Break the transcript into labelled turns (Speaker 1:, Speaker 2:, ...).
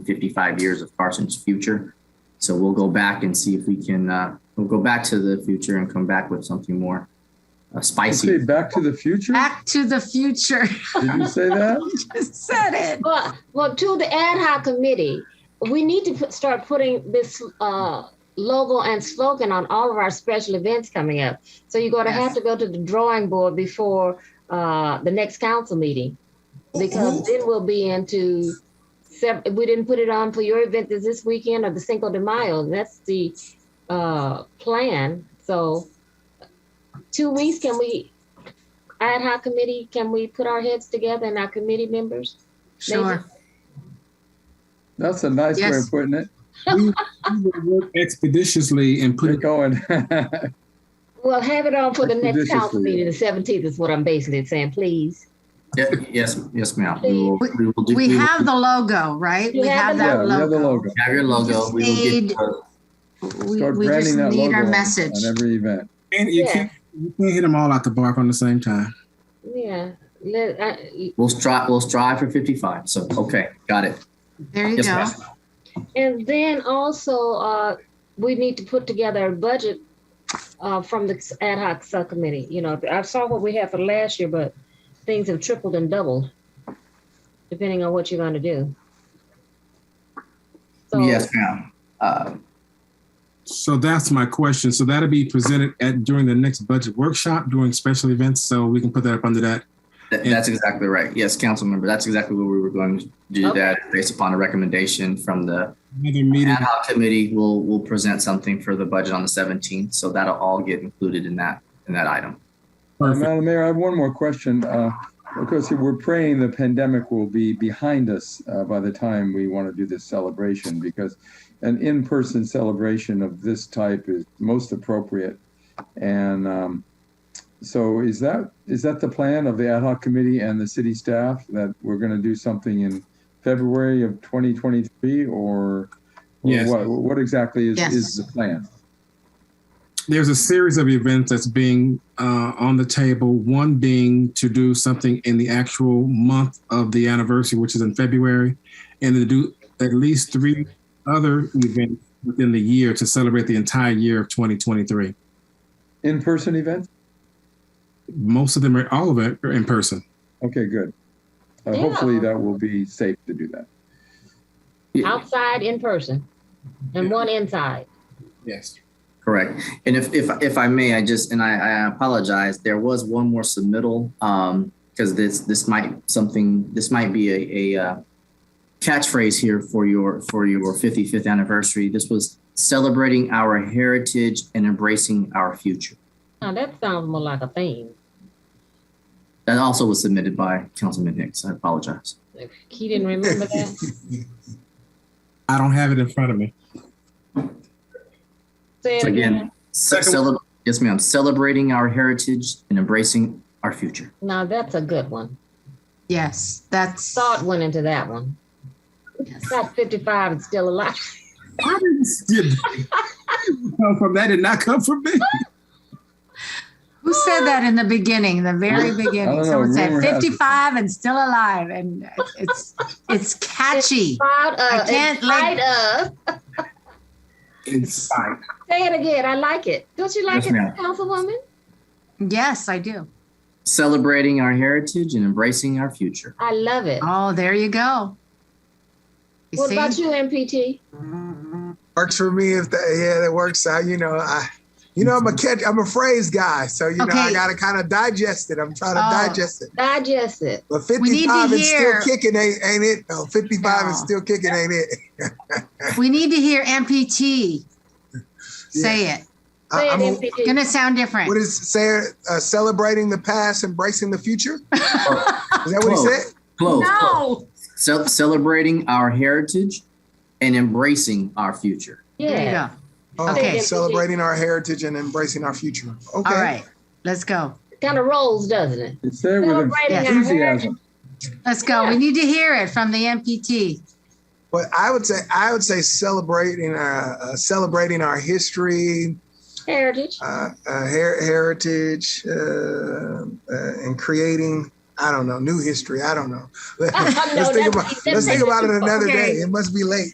Speaker 1: 55 years of Carson's future. So we'll go back and see if we can, uh, we'll go back to the future and come back with something more uh,
Speaker 2: Say
Speaker 1: spicy.
Speaker 2: Back to the Future?
Speaker 3: Back to the future.
Speaker 2: Did you say that?
Speaker 3: Said it.
Speaker 4: Well, well, to the ad hoc committee, we need to put, start putting this uh, logo and slogan on all of our special events coming up. So you're going to have
Speaker 3: Yes.
Speaker 4: to go to the drawing board before uh, the next council meeting, because then we'll be into. sev- We didn't put it on for your event this this weekend or the Cinco de Mayo. That's the uh, plan. So two weeks, can we? Ad hoc committee, can we put our heads together and our committee members?
Speaker 3: Sure.
Speaker 2: That's a nice way
Speaker 3: Yes.
Speaker 2: of putting it.
Speaker 5: expeditiously and put
Speaker 2: They're
Speaker 5: it
Speaker 2: going.
Speaker 4: Well, have it on for the next council
Speaker 2: Expeditiously.
Speaker 4: meeting, the seventeenth is what I'm basically saying, please.
Speaker 1: Yeah, Yes, yes, ma'am. We will, we will do.
Speaker 3: We
Speaker 1: will
Speaker 3: have the logo, right?
Speaker 4: We
Speaker 3: We have
Speaker 4: have the
Speaker 2: Yeah,
Speaker 3: that
Speaker 2: we have the
Speaker 3: logo.
Speaker 2: logo.
Speaker 1: Have your logo. We will get,
Speaker 3: Need-
Speaker 1: uh,
Speaker 3: We
Speaker 2: Start
Speaker 3: we just
Speaker 2: branding that
Speaker 3: need
Speaker 2: logo
Speaker 3: our
Speaker 2: on-
Speaker 3: message.
Speaker 2: On every event.
Speaker 5: and you
Speaker 4: Yeah.
Speaker 5: can't you can't hit them all out the bark on the same time.
Speaker 4: Yeah, let, I,
Speaker 1: we'll strive, we'll strive for 55. So, okay, got it.
Speaker 3: There you
Speaker 1: Yes,
Speaker 3: go.
Speaker 1: ma'am.
Speaker 4: and then also, uh, we need to put together a budget uh, from the ad hoc subcommittee, you know, I saw what we had for last year, but things have tripled and doubled, depending on what you're gonna do. So,
Speaker 1: Yes, ma'am. Uh,
Speaker 5: So that's my question. So that'll be presented at during the next budget workshop during special events. So we can put that up under that.
Speaker 1: That, that's exactly right. Yes, council member, that's exactly what we were going to do
Speaker 4: Okay.
Speaker 1: that based upon a recommendation from the
Speaker 5: Another meeting.
Speaker 1: ad hoc committee. We'll, we'll present something for the budget on the 17th. So that'll all get included in that, in that item.
Speaker 5: Perfect.
Speaker 2: Madam Mayor, I have one more question. Uh, Of course, we're praying the pandemic will be behind us uh, by the time we want to do this celebration because an in-person celebration of this type is most appropriate. And um, so is that, is that the plan of the ad hoc committee and the city staff that we're going to do something in February of 2023 or? or
Speaker 5: Yes.
Speaker 2: What, what exactly is,
Speaker 3: Yes.
Speaker 2: is the plan?
Speaker 5: There's a series of events that's being uh, on the table. One being to do something in the actual month of the anniversary, which is in February, and to do at least three other events within the year to celebrate the entire year of 2023.
Speaker 2: In-person event?
Speaker 5: Most of them are all of it are in person.
Speaker 2: Okay, good. Uh, Hopefully
Speaker 4: Yeah.
Speaker 2: that will be safe to do that.
Speaker 4: outside, in person, and one inside.
Speaker 5: Yes.
Speaker 1: Correct. And if, if, if I may, I just, and I, I apologize, there was one more submittal, um, because this, this might something, this might be a, a, uh, catchphrase here for your, for your 55th anniversary. This was celebrating our heritage and embracing our future.
Speaker 4: Now, that sounds more like a theme.
Speaker 1: That also was submitted by Councilman Hicks. I apologize.
Speaker 4: He didn't remember that.
Speaker 5: I don't have it in front of me.
Speaker 4: Say it
Speaker 1: So again, ce-
Speaker 5: Second-
Speaker 1: celeb- yes, ma'am. Celebrating our heritage and embracing our future.
Speaker 4: Now that's a good one.
Speaker 3: Yes, that's.
Speaker 4: Thought went into that one. Got fifty-five and still alive.
Speaker 5: I didn't see it. come from that did not come from me.
Speaker 3: Who said that in the beginning, the very
Speaker 2: I don't know,
Speaker 3: beginning? Someone said
Speaker 2: rumor has it.
Speaker 3: 55 and still alive, and it's, it's catchy.
Speaker 4: Proud of, uh, in
Speaker 3: can't like-
Speaker 4: spite of.
Speaker 5: Inside.
Speaker 4: Say it again. I like it. Don't you like
Speaker 1: Yes,
Speaker 4: it,
Speaker 1: ma'am.
Speaker 4: Councilwoman?
Speaker 3: Yes, I do.
Speaker 1: Celebrating our heritage and embracing our future.
Speaker 4: I love it.
Speaker 3: Oh, there you go. You
Speaker 4: What about
Speaker 3: see?
Speaker 4: you, MPT?
Speaker 6: works for me if that yeah that works out you know i you know i'm a catch i'm a phrase guy so you know i
Speaker 3: Mm-hmm. Okay.
Speaker 6: gotta kind of digest it i'm trying to
Speaker 3: Oh.
Speaker 6: digest it
Speaker 4: Digest it.
Speaker 6: but
Speaker 3: We need to
Speaker 6: 55 is still
Speaker 3: hear-
Speaker 6: kicking ain't, ain't it no 55 is
Speaker 3: No.
Speaker 6: still kicking ain't it
Speaker 3: We need to hear MPT. Say it.
Speaker 6: I,
Speaker 4: Say it,
Speaker 6: I'm a-
Speaker 4: MPT.
Speaker 3: Gonna sound
Speaker 6: what
Speaker 3: different.
Speaker 6: is Sarah uh, celebrating the past embracing the future Oh, is that what he
Speaker 1: Close.
Speaker 6: said
Speaker 1: Close. close.
Speaker 3: No.
Speaker 1: Ce- celebrating our heritage and embracing our future.
Speaker 3: There you
Speaker 4: Yeah.
Speaker 3: go.
Speaker 6: oh,
Speaker 3: Okay.
Speaker 6: celebrating our heritage and embracing our future okay
Speaker 3: All right, let's go.
Speaker 4: Kind of rolls, doesn't it?
Speaker 2: It's there with
Speaker 4: Celebrating our
Speaker 2: enthusiasm.
Speaker 3: Let's go. We need to hear it from the MPT.
Speaker 6: but i would say i would say celebrating uh, uh celebrating our history
Speaker 4: Heritage.
Speaker 6: uh, uh, her- heritage uh, uh, and creating. I don't know. New history. I don't know.
Speaker 4: No,
Speaker 6: let's think
Speaker 4: that's-
Speaker 6: about
Speaker 4: that's
Speaker 6: let's think about it
Speaker 4: different.
Speaker 6: another
Speaker 3: Okay.
Speaker 6: day. It must be late.